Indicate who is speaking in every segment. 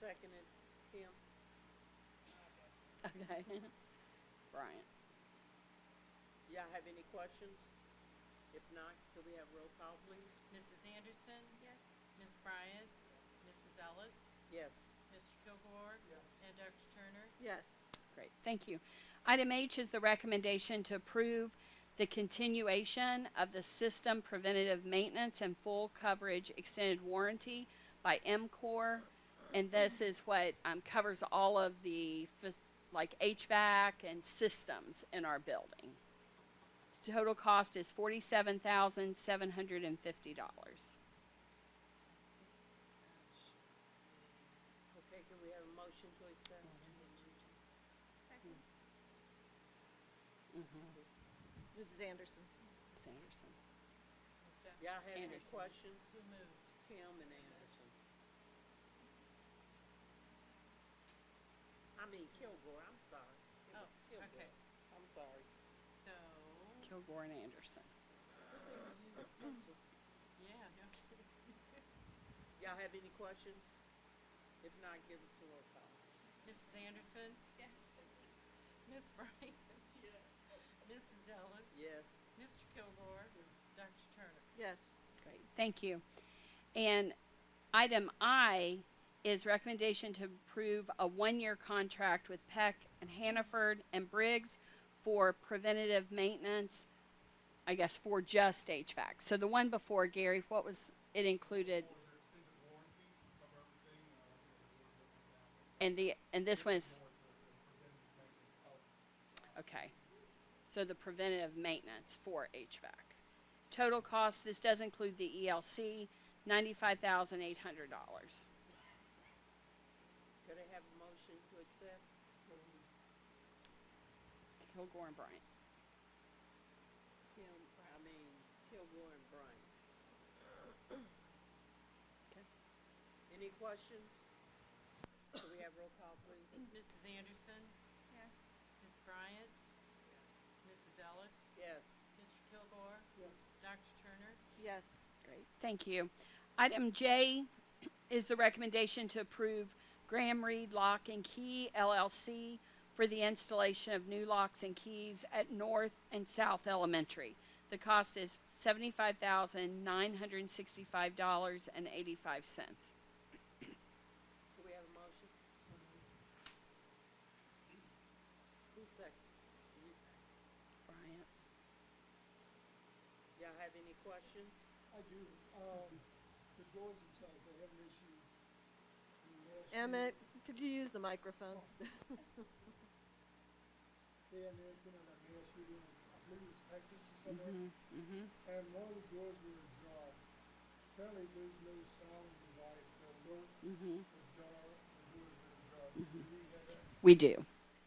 Speaker 1: seconded him.
Speaker 2: Okay. Bryant,
Speaker 1: Y'all have any questions? If not, could we have roll call, please?
Speaker 3: Mrs. Anderson,
Speaker 4: Yes.
Speaker 3: Ms. Bryant, Mrs. Ellis,
Speaker 1: Yes.
Speaker 3: Mr. Kilgore, and Dr. Turner.
Speaker 4: Yes.
Speaker 2: great, thank you. Item H is the recommendation to approve the continuation of the system preventative maintenance and full coverage extended warranty by MCOR. And this is what, um, covers all of the, fas- like HVAC and systems in our building. Total cost is forty-seven thousand, seven hundred and fifty dollars.
Speaker 1: Okay, can we have a motion to accept?
Speaker 4: Second. Mrs. Anderson.
Speaker 2: Sanderson.
Speaker 3: Ms. Dun-
Speaker 1: Y'all have any
Speaker 2: Anderson.
Speaker 1: questions?
Speaker 3: Who moved?
Speaker 1: Kim and Anderson. I mean Kilgore, I'm sorry. It was
Speaker 3: Oh,
Speaker 1: Kilgore.
Speaker 3: okay.
Speaker 1: I'm sorry.
Speaker 3: So,
Speaker 2: Kilgore and Anderson.
Speaker 3: yeah, no kidding.
Speaker 1: Y'all have any questions? If not, give us a roll call.
Speaker 3: Mrs. Anderson,
Speaker 4: Yes.
Speaker 3: Ms. Bryant. Yes. Mrs. Ellis,
Speaker 1: Yes.
Speaker 3: Mr. Kilgore, Dr. Turner.
Speaker 4: Yes.
Speaker 2: Great, thank you. And item I is recommendation to approve a one-year contract with Peck and Hannaford and Briggs for preventative maintenance, I guess, for just HVAC. So the one before, Gary, what was, it included,
Speaker 5: Or their extended warranty, cover everything, uh,
Speaker 2: and the, and this one is,
Speaker 5: more for the preventative maintenance help.
Speaker 2: okay. So the preventative maintenance for HVAC. Total cost, this does include the ELC, ninety-five thousand eight hundred dollars.
Speaker 1: Could I have a motion to accept?
Speaker 2: Kilgore and Bryant.
Speaker 1: Kim, I mean Kilgore and Bryant.
Speaker 2: Okay.
Speaker 1: Any questions? Can we have roll call, please?
Speaker 3: Mrs. Anderson,
Speaker 4: Yes.
Speaker 3: Ms. Bryant, Mrs. Ellis,
Speaker 1: Yes.
Speaker 3: Mr. Kilgore,
Speaker 1: Yes.
Speaker 3: Dr. Turner.
Speaker 4: Yes.
Speaker 2: Great, thank you. Item J is the recommendation to approve Graham Reed Lock and Key LLC for the installation of new locks and keys at North and South Elementary. The cost is seventy-five thousand nine hundred and sixty-five dollars and eighty-five cents.
Speaker 1: Do we have a motion? Who second? You-
Speaker 2: Bryant,
Speaker 1: Y'all have any questions?
Speaker 6: I do, um, the doors themselves, they have an issue. in the last year.
Speaker 4: Emmett, could you use the
Speaker 6: Oh.
Speaker 4: microphone?
Speaker 6: They had an incident at mass shooting, I believe it was Texas or somewhere,
Speaker 4: Mm-hmm.
Speaker 2: Mm-hmm.
Speaker 6: and one of the doors were ajar. Apparently there's no sound device, so no
Speaker 4: Mm-hmm.
Speaker 6: ajar, the doors were ajar. We had that.
Speaker 2: We do,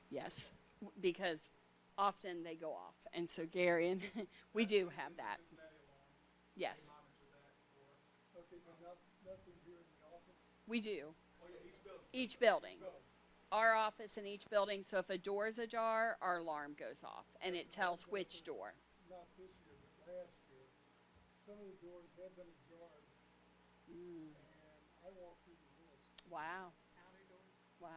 Speaker 2: yes, w- because often they go off, and so Gary and, we do have that,
Speaker 5: Cincinnati alarm, they
Speaker 2: yes,
Speaker 5: monitor that for us.
Speaker 6: Okay, but not, nothing here in the office.
Speaker 2: we do,
Speaker 5: Oh, yeah, each building.
Speaker 2: each building.
Speaker 5: Each building.
Speaker 2: our office in each building, so if a door is ajar, our alarm goes off and it tells which door.
Speaker 6: not this year, but last year, some of the doors have been ajar. And I walked through the doors,
Speaker 2: Wow,
Speaker 3: Outer doors,
Speaker 2: wow.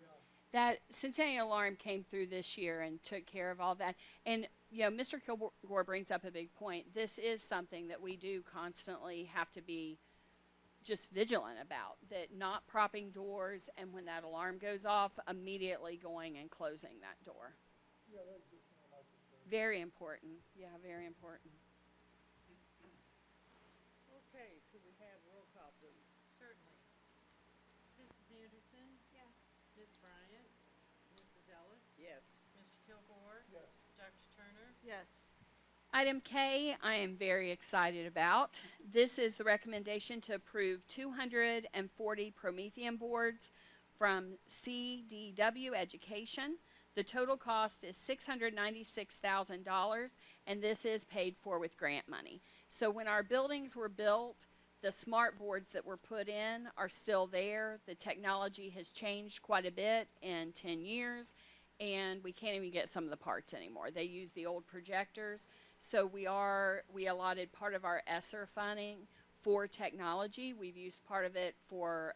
Speaker 3: yeah.
Speaker 6: yeah.
Speaker 2: That Cincinnati Alarm came through this year and took care of all that. And, you know, Mr. Kilgore brings up a big point. This is something that we do constantly have to be just vigilant about, that not propping doors and when that alarm goes off, immediately going and closing that door.
Speaker 6: Yeah, that's just one of my concerns.
Speaker 2: Very important. Yeah, very important.
Speaker 1: Okay, could we have roll call, please?
Speaker 3: Certainly. Mrs. Anderson,
Speaker 4: Yes.
Speaker 3: Ms. Bryant, Mrs. Ellis,
Speaker 1: Yes.
Speaker 3: Mr. Kilgore,
Speaker 6: Yes.
Speaker 3: Dr. Turner,
Speaker 4: Yes.
Speaker 2: Item K, I am very excited about. This is the recommendation to approve 240 Promethean boards from CDW Education. The total cost is $696,000, and this is paid for with grant money. So when our buildings were built, the smart boards that were put in are still there. The technology has changed quite a bit in 10 years, and we can't even get some of the parts anymore. They use the old projectors. So we are, we allotted part of our ESSER funding for technology. We've used part of it for